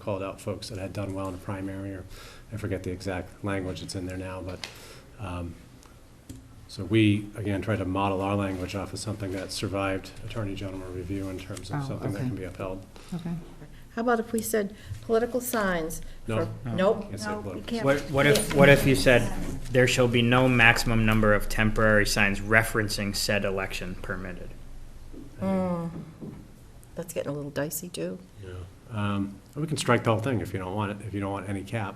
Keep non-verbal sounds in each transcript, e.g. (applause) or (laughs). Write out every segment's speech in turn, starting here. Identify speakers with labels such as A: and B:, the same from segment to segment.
A: called out folks that had done well in a primary, or I forget the exact language that's in there now, but, um, so we, again, try to model our language off of something that survived Attorney General review in terms of
B: Oh,
A: something that
B: okay.
A: can be upheld.
B: Okay.
C: How about if we said political signs?
A: No.
C: for- Nope.
A: Can't say political.
D: What, what if, what if you said, there shall be no maximum number of temporary signs referencing said election permitted?
C: That's getting a little dicey, too.
A: Yeah. Um, We can strike the whole thing if you don't want it, if you don't want any cap.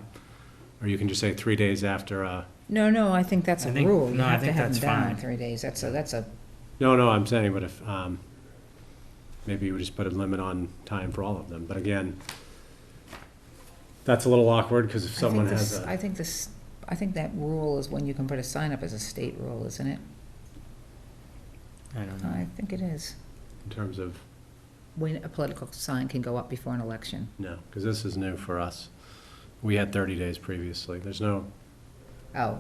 A: Or you can just say three days after, uh,
B: No, no, I think that's a
D: I think-
B: rule. You
D: no, I
B: have to
D: think
B: have them
D: that's
B: down in
D: fine.
B: three days. That's a, that's a,
A: no, no, I'm saying, but if, um, maybe you just put a limit on time for all of them. But again, that's a little awkward because if
B: I
A: someone
B: think
A: has
B: this,
A: a,
B: I think this, I think that rule is when you can put a sign up as a state rule, isn't it?
D: I don't know.
B: I think it is.
A: in terms of,
B: When a political sign can go up before an election.
A: no, because this is new for us. We had thirty days previously. There's no,
B: Oh,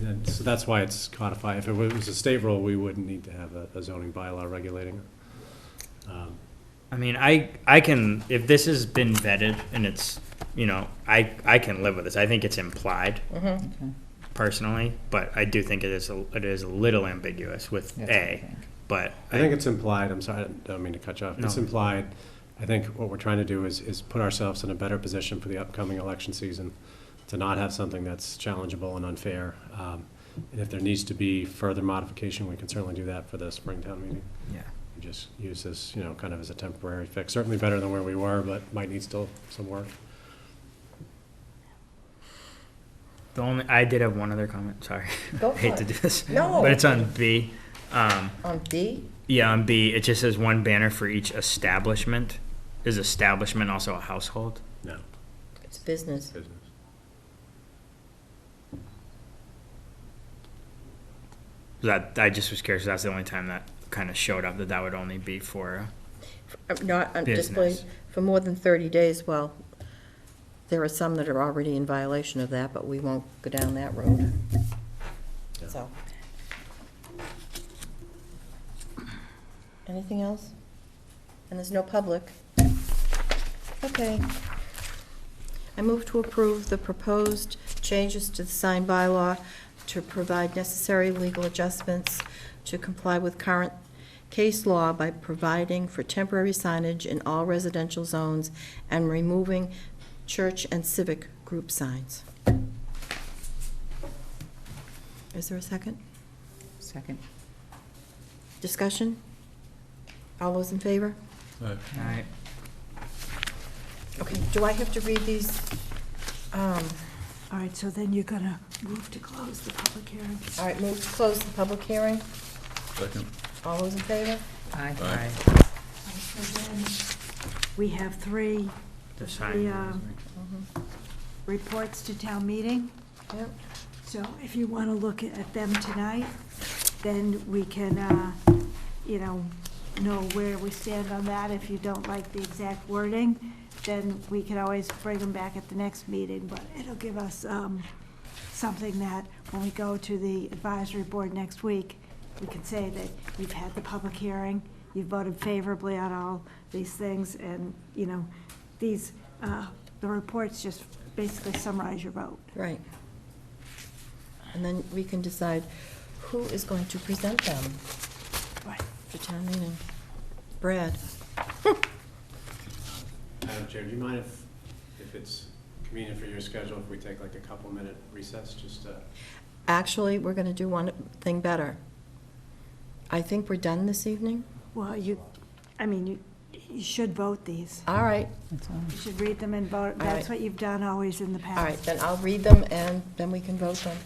A: and so that's why it's codified. If it was a state rule, we wouldn't need to have a- a zoning bylaw regulating it. Um,
D: I mean, I, I can, if this has been vetted and it's, you know, I, I can live with this. I think it's implied
C: Mm-hmm.
B: okay.
D: personally, but I do think it is, a- it is a little ambiguous with
B: That's what I
D: A,
B: think.
D: but.
A: I think it's implied, I'm sorry, I don't mean to cut you off. It's
D: No.
A: implied, I think what we're trying to do is, is put ourselves in a better position for the upcoming election season, to not have something that's challengeable and unfair. Um, And if there needs to be further modification, we can certainly do that for the Springtown meeting.
D: Yeah.
A: We Just use this, you know, kind of as a temporary fix, certainly better than where we were, but might need still some work.
D: The only, I did have one other comment, sorry. (laughs)
C: Go
D: I Hate
C: for
D: to
C: it.
D: do this.
C: No.
D: But it's on B. Um,
C: On D?
D: Yeah, on B, it just says one banner for each establishment. Is establishment also a household?
A: No.
C: It's business.
A: business.
D: That I just was curious. That's the only time that kind of showed up that that would only be for.
C: Uh, Not, on display
D: Business.
C: for more than 30 days, well, there are some that are already in violation of that, but we won't go down that road.
A: Yeah.
C: So. Anything else? And there's no public? Okay. I move to approve the proposed changes to the sign bylaw to provide necessary legal adjustments to comply with current case law by providing for temporary signage in all residential zones and removing church and civic group signs. Is there a second?
B: Second.
C: Discussion? All those in favor?
D: All right.
C: Okay, do I have to read these? Um,
E: All right, so then you're gonna move to close the public hearing.
C: All right, move to close the public hearing.
F: Second.
C: All those in favor?
B: Aye.
F: Aye.
E: So then We have three
D: The sign.
E: The, um, reports to town meeting,
C: Yep.
E: so if you wanna look at them tonight, then we can, uh, you know, know where we stand on that. If you don't like the exact wording, then we can always bring them back at the next meeting, but it'll give us, um, something that when we go to the advisory board next week, we can say that you've had the public hearing, you voted favorably on all these things, and, you know, these, uh, the reports just basically summarize your vote.
C: Right. And then we can decide who is going to present them
E: Right.
C: for town meeting. Brad?
A: Madam Chair, do you mind if, if it's convenient for your schedule, if we take like a couple minute recess, just to?
C: Actually, we're going to do one thing better. I think we're done this evening.
E: Well, you, I mean, you, you should vote these.
C: All right,
B: That's all.
E: You should read them and vote. That's
C: right.
E: what you've done always in the past.
C: all right, then I'll read them and then we can vote them.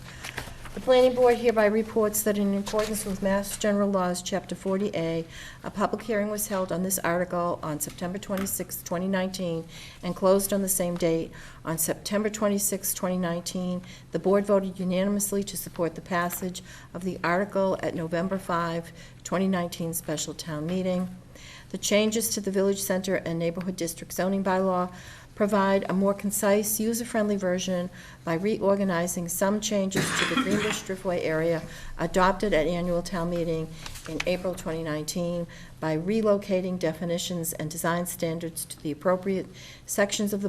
C: The planning board hereby reports that in accordance with Mass General Laws, Chapter 40A, a public hearing was held on this article on September 26, 2019, and closed on the same date. On September 26, 2019, the board voted unanimously to support the passage of the article at November 5, 2019 special town meeting. The changes to the Village Center and Neighborhood District zoning bylaw provide a more concise, user-friendly version by reorganizing some changes to the Greenbush Driftway area adopted at annual town meeting in April 2019 by relocating definitions and design standards to the appropriate sections of the